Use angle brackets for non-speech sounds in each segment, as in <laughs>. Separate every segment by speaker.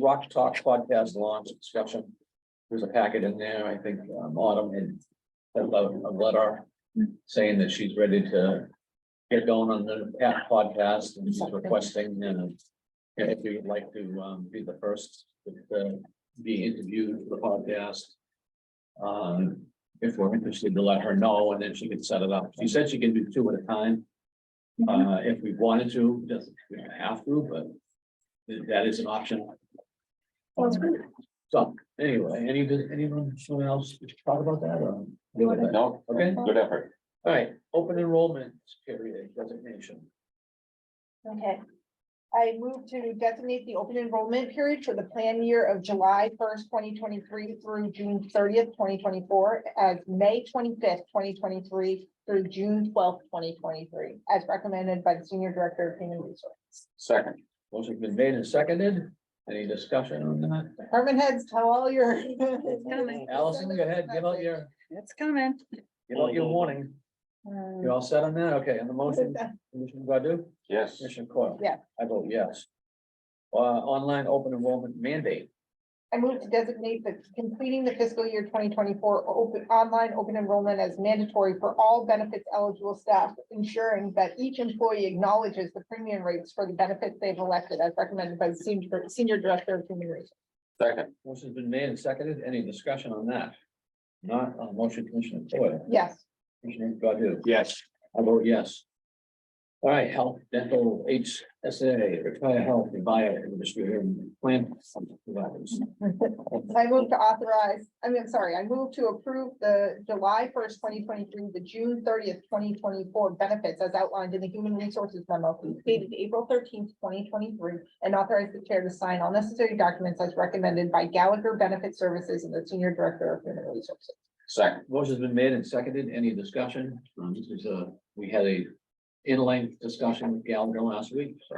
Speaker 1: Rock Talk podcast launch discussion. There's a packet in there, I think, um, Autumn had sent out a letter saying that she's ready to get going on the app podcast and she's requesting, and if you'd like to, um, be the first to be interviewed for the podcast. Um, if we're interested to let her know, and then she can set it up. She said she can do two at a time. Uh, if we wanted to, doesn't, we don't have to, but th- that is an option.
Speaker 2: Sounds good.
Speaker 1: So, anyway, any, anyone, someone else talk about that or?
Speaker 3: No,
Speaker 1: Okay, all
Speaker 3: good effort.
Speaker 1: right, open enrollment period designation.
Speaker 2: Okay. I move to designate the open enrollment period for the plan year of July first, twenty twenty-three through June thirtieth, twenty twenty-four, as May twenty-fifth, twenty twenty-three through June twelfth, twenty twenty-three, as recommended by the Senior Director of Human Resources.
Speaker 3: Second,
Speaker 1: Motion's been made and seconded. Any discussion on that?
Speaker 2: Department heads, tell all your.
Speaker 4: coming.
Speaker 1: Allison, go ahead, give out your,
Speaker 4: It's coming.
Speaker 1: give out your warning.
Speaker 2: Uh,
Speaker 1: You all set on that? Okay, on the motion, Commissioner Godu?
Speaker 3: yes,
Speaker 1: Commissioner Coyle?
Speaker 2: Yeah.
Speaker 1: I vote yes. Uh, online open enrollment mandate.
Speaker 2: I move to designate the completing the fiscal year twenty twenty-four open, online open enrollment as mandatory for all benefits eligible staff, ensuring that each employee acknowledges the premium rates for the benefits they've elected as recommended by the senior, senior director of human resources.
Speaker 3: second,
Speaker 1: Motion's been made and seconded. Any discussion on that? Not on motion, Commissioner Coyle,
Speaker 2: Yes,
Speaker 1: Commissioner Godu?
Speaker 3: yes,
Speaker 1: I vote yes. All right, health, dental, HSA, retire health, bio industry, and plan. providers.
Speaker 2: I move to authorize, I mean, I'm sorry, I move to approve the July first, twenty twenty-three, the June thirtieth, twenty twenty-four benefits as outlined in the human resources memo dated April thirteenth, twenty twenty-three, and authorize the chair to sign all necessary documents as recommended by Gallagher Benefit Services and the Senior Director of Human Resources.
Speaker 3: second,
Speaker 1: Motion's been made and seconded. Any discussion? Um, This is a, we had a in-length discussion with Gallagher last week. so.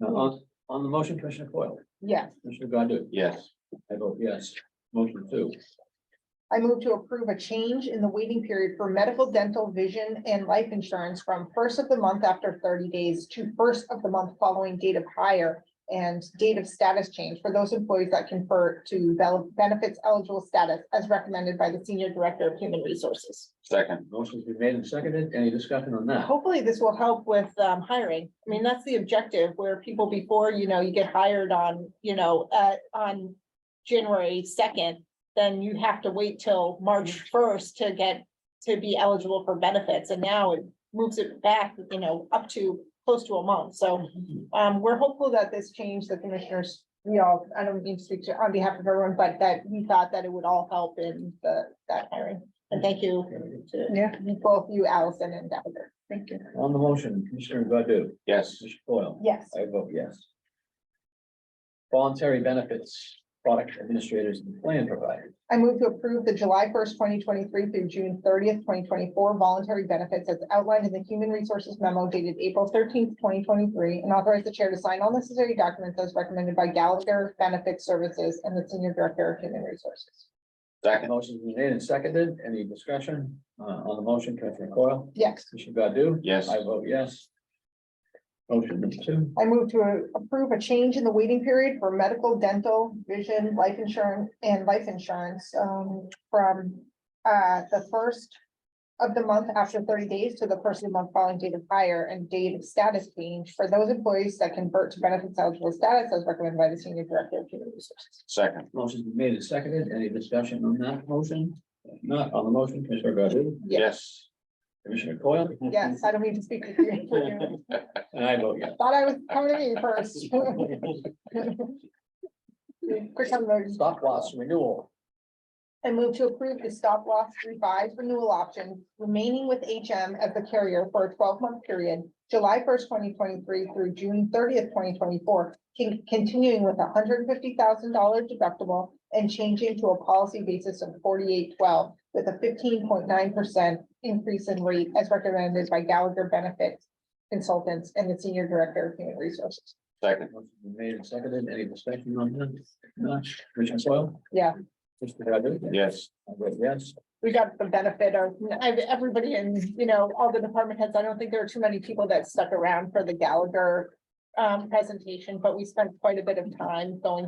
Speaker 1: Now, on, on the motion, Commissioner Coyle,
Speaker 2: Yes,
Speaker 1: Commissioner Godu?
Speaker 3: yes,
Speaker 1: I vote yes. Motion two.
Speaker 2: I move to approve a change in the waiting period for medical, dental, vision, and life insurance from first of the month after thirty days to first of the month following date of hire and date of status change for those employees that confer to bel- benefits eligible status as recommended by the Senior Director of Human Resources.
Speaker 3: second,
Speaker 1: Motion's been made and seconded. Any discussion on that?
Speaker 2: Hopefully, this will help with um, hiring. I mean, that's the objective where people before, you know, you get hired on, you know, uh, on January second, then you have to wait till
Speaker 4: Mm.
Speaker 2: March first to get, to be eligible for benefits. And now it moves it back, you know, up to close to a month. So um, we're hopeful that this change, the commissioners, we all, I don't mean to speak to, on behalf of everyone, but that we thought that it would all help in the, that hiring. And thank you to
Speaker 4: Yeah,
Speaker 2: both you, Allison and Gallagher.
Speaker 4: thank you.
Speaker 1: On the motion, Commissioner Godu?
Speaker 3: yes,
Speaker 1: Commissioner Coyle?
Speaker 2: Yes,
Speaker 1: I vote yes. Voluntary benefits, product administrators and plan providers.
Speaker 2: I move to approve the July first, twenty twenty-three through June thirtieth, twenty twenty-four voluntary benefits as outlined in the Human Resources memo dated April thirteenth, twenty twenty-three, and authorize the chair to sign all necessary documents as recommended by Gallagher Benefit Services and the Senior Director of Human Resources.
Speaker 3: second,
Speaker 1: Motion's been made and seconded. Any discussion uh, on the motion, Commissioner Coyle?
Speaker 2: Yes,
Speaker 1: Commissioner Godu?
Speaker 3: yes,
Speaker 1: I vote yes. Motion number two.
Speaker 2: I move to approve a change in the waiting period for medical, dental, vision, life insurance, and life insurance, um, from, uh, the first of the month after thirty days to the first of the month following date of hire and date of status change for those employees that convert to benefits eligible status as recommended by the senior director of human resources.
Speaker 3: second,
Speaker 1: Motion's been made and seconded. Any discussion on that motion? If Not on the motion, Commissioner Godu?
Speaker 3: yes,
Speaker 1: Commissioner Coyle?
Speaker 2: Yes, I don't mean to speak to you.
Speaker 1: And I vote yes.
Speaker 2: Thought I was coming to you first. <laughs> Quick on those.
Speaker 1: Stop loss renewal.
Speaker 2: I move to approve the stop loss revised renewal option remaining with HM as the carrier for a twelve month period, July first, twenty twenty-three through June thirtieth, twenty twenty-four, continuing with a hundred and fifty thousand dollar deductible and changing to a policy basis of forty-eight twelve with a fifteen point nine percent increase in rate as recommended by Gallagher Benefit Consultants and the Senior Director of Human Resources.
Speaker 3: second,
Speaker 1: Motion's been Made and seconded. Any discussion on that? If Not Commissioner Coyle?
Speaker 2: Yeah.
Speaker 1: Commissioner Godu?
Speaker 3: yes,
Speaker 1: I vote yes.
Speaker 2: we got the benefit of, I've, everybody in, you know, all the department heads, I don't think there are too many people that stuck around for the Gallagher. Um, presentation, but we spent quite a bit of time going